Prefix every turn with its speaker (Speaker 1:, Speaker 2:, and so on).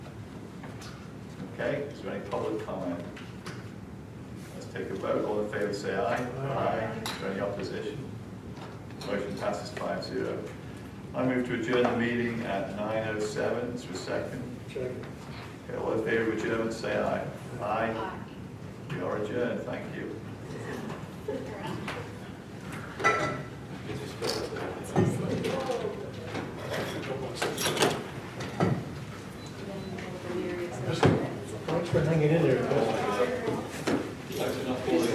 Speaker 1: Okay, is there any public comment? Let's take a vote, all in favor say aye. Aye. Is there any opposition? Motion passes five zero. I move to adjourn the meeting at nine oh seven, is there a second?
Speaker 2: Second.
Speaker 1: Okay, all in favor of adjournment say aye. Aye. We are adjourned, thank you.
Speaker 3: Around.
Speaker 4: It's just-